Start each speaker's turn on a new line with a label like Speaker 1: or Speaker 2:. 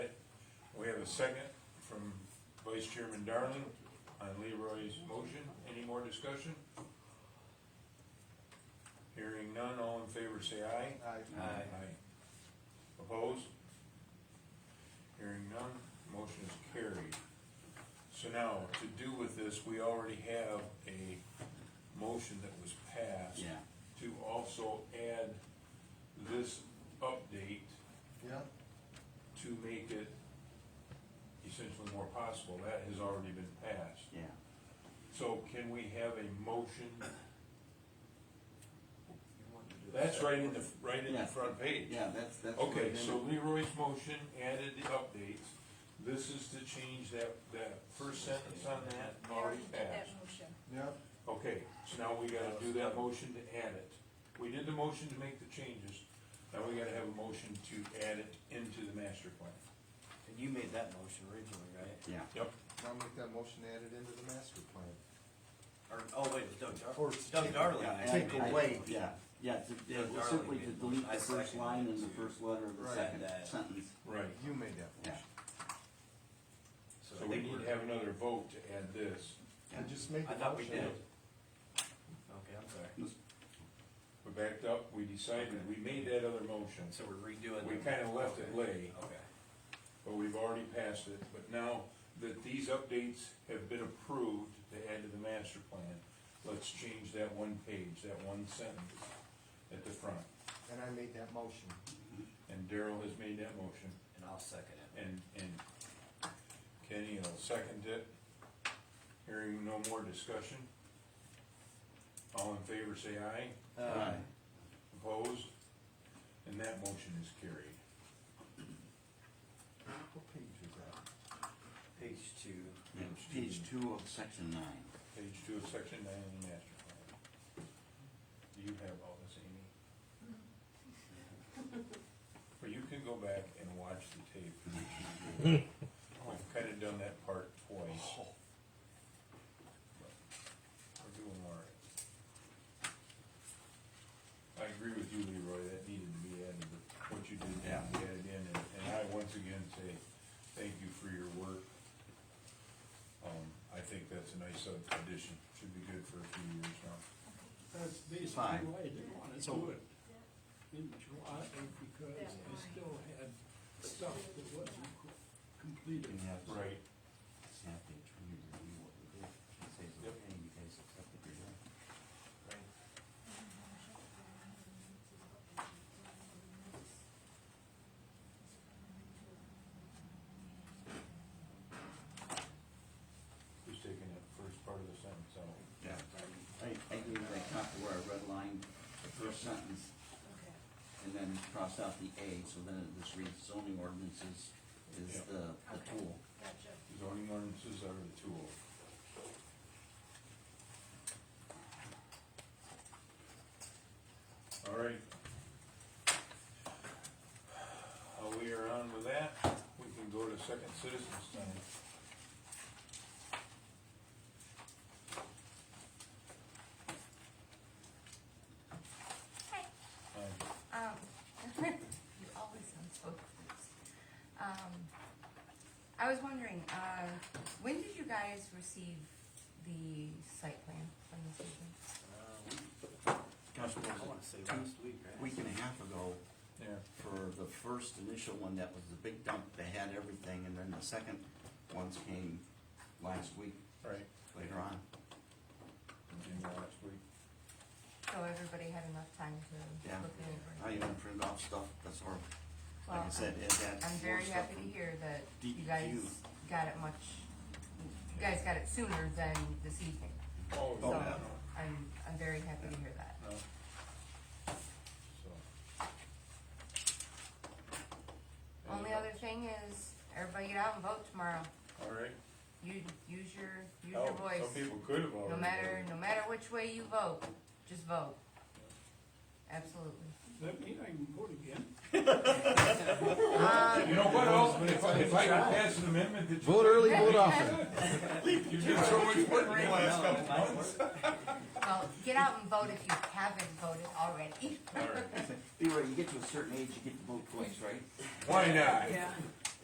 Speaker 1: have a second from Vice Chairman Darling on Leroy's motion. Any more discussion? Hearing none, all in favor say aye.
Speaker 2: Aye.
Speaker 1: Opposed? Hearing none, motion is carried. So now, to do with this, we already have a motion that was passed.
Speaker 2: Yeah.
Speaker 1: To also add this update
Speaker 3: Yeah,
Speaker 1: to make it essentially more possible, that has already been passed.
Speaker 2: Yeah,
Speaker 1: So can we have a motion? That's right in the, right in the
Speaker 2: Yeah.
Speaker 1: front page.
Speaker 2: yeah, that's, that's. what
Speaker 1: Okay,
Speaker 2: it is.
Speaker 1: so Leroy's motion added the updates. This is to change that, that first sentence on that,
Speaker 4: I already
Speaker 1: already
Speaker 4: did that
Speaker 1: passed.
Speaker 4: motion.
Speaker 3: yeah,
Speaker 1: Okay, so now we gotta do that motion to add it. We did the motion to make the changes, now we gotta have a motion to add it into the master plan.
Speaker 5: And you made that motion originally, right?
Speaker 2: Yeah,
Speaker 1: Yep.
Speaker 3: I'll make that motion added into the master plan.
Speaker 5: Or, oh wait, it was Doug Dar-
Speaker 3: Or
Speaker 5: it's Doug Darling.
Speaker 2: yeah.
Speaker 5: that
Speaker 2: I-
Speaker 5: made
Speaker 2: I-
Speaker 5: the motion.
Speaker 2: Yeah, yeah, to, yeah,
Speaker 5: Darling
Speaker 2: simply
Speaker 5: made
Speaker 2: to
Speaker 5: the
Speaker 2: delete
Speaker 5: motion. I
Speaker 2: the first
Speaker 5: second
Speaker 2: line
Speaker 5: it
Speaker 2: and the
Speaker 5: too.
Speaker 2: first letter of the
Speaker 3: Right.
Speaker 2: second
Speaker 5: That-
Speaker 2: sentence,
Speaker 1: Right,
Speaker 3: You made that
Speaker 2: yeah.
Speaker 3: motion.
Speaker 1: so
Speaker 5: So I
Speaker 1: we
Speaker 5: think
Speaker 1: need to
Speaker 5: we're,
Speaker 1: have another vote to add this.
Speaker 3: I just made
Speaker 5: I
Speaker 3: the
Speaker 5: thought we
Speaker 3: motion.
Speaker 5: did. Okay, I'm sorry.
Speaker 1: We backed up, we decided, we made that other motion,
Speaker 5: So we're redoing.
Speaker 1: We
Speaker 5: the-
Speaker 1: kinda left it
Speaker 5: okay.
Speaker 1: lay.
Speaker 5: Okay.
Speaker 1: but we've already passed it. But now that these updates have been approved to add to the master plan, let's change that one page, that one sentence at the front.
Speaker 3: And I made that motion.
Speaker 1: And Daryl has made that motion,
Speaker 5: And I'll second it.
Speaker 1: and, and Kenny will second it. Hearing no more discussion. All in favor, say aye.
Speaker 2: Aye.
Speaker 1: Opposed? And that motion is carried.
Speaker 3: What page was that?
Speaker 5: Page two.
Speaker 2: Yeah, Page two of section nine.
Speaker 1: Page two of section nine of the master plan. Do you have all this, Amy? Well, you can go back and watch the tape. I've kinda done that part twice. But We're doing alright. I agree with you, Leroy, that needed to be added, but what you did, needed to be added in, and, and I once again say, thank you for your work. Um, I think that's a nice uh, addition, should be good for a few years now.
Speaker 6: That's
Speaker 2: Fine.
Speaker 6: basically why I didn't wanna do it in July, because I still had stuff that wasn't completed.
Speaker 2: You have to-
Speaker 1: Right.
Speaker 2: you have to truly review what we did, it says,
Speaker 1: Yep.
Speaker 2: okay, you guys accepted your work.
Speaker 1: Who's taking that first part of the sentence out?
Speaker 2: Yeah.
Speaker 7: Um,
Speaker 2: I, I gave that copy where I redlined the first sentence
Speaker 4: Okay.
Speaker 2: and then crossed out the A, so then it just reads zoning ordinances is
Speaker 1: Yeah.
Speaker 2: the, the
Speaker 4: Okay.
Speaker 2: tool.
Speaker 4: Gotcha.
Speaker 1: Zoning ordinances are the tool. All right. While we are on with that, we can go to second citizens time.
Speaker 7: Hi.
Speaker 1: Hi.
Speaker 7: Um, you always sound so confused. Um, I was wondering, uh, when did you guys receive the site plan from the city?
Speaker 2: Gosh, what was
Speaker 5: Uh, I
Speaker 2: it?
Speaker 5: wanna say
Speaker 2: Two-
Speaker 5: last week, right?
Speaker 2: Week and a half ago
Speaker 1: Yeah,
Speaker 2: for the first initial one, that was the big dump, they had everything, and then the second ones came last week,
Speaker 1: right.
Speaker 2: later on.
Speaker 1: Continue last week.
Speaker 7: So everybody had enough time to
Speaker 2: Yeah,
Speaker 7: look it over?
Speaker 2: I even printed off stuff, that's all, like I
Speaker 7: Well,
Speaker 2: said, it had.
Speaker 7: I'm
Speaker 2: more
Speaker 7: very
Speaker 2: stuff
Speaker 7: happy to
Speaker 2: from-
Speaker 7: hear that you
Speaker 1: E
Speaker 2: DEQ.
Speaker 7: guys got it much, you guys got it sooner than this evening.
Speaker 1: Oh,
Speaker 7: So,
Speaker 2: yeah.
Speaker 7: I'm, I'm very happy to hear that.
Speaker 1: No. So.
Speaker 7: Only other thing is, everybody get out and vote tomorrow.
Speaker 1: All right.
Speaker 7: You, use your, use
Speaker 1: Oh,
Speaker 7: your voice.
Speaker 1: Some people could have already.
Speaker 7: No matter,
Speaker 1: voted.
Speaker 7: no matter which way you vote, just vote. Absolutely.
Speaker 6: Does that mean I can vote again?
Speaker 1: You know what else, if I, if I could pass an amendment that you.
Speaker 8: Vote early, vote often.
Speaker 1: You did so much work in the last couple months.
Speaker 7: Well, get out and vote if you haven't voted already.
Speaker 1: All right.
Speaker 2: Leroy, you get to a certain age, you get to vote twice, right?
Speaker 1: Why not?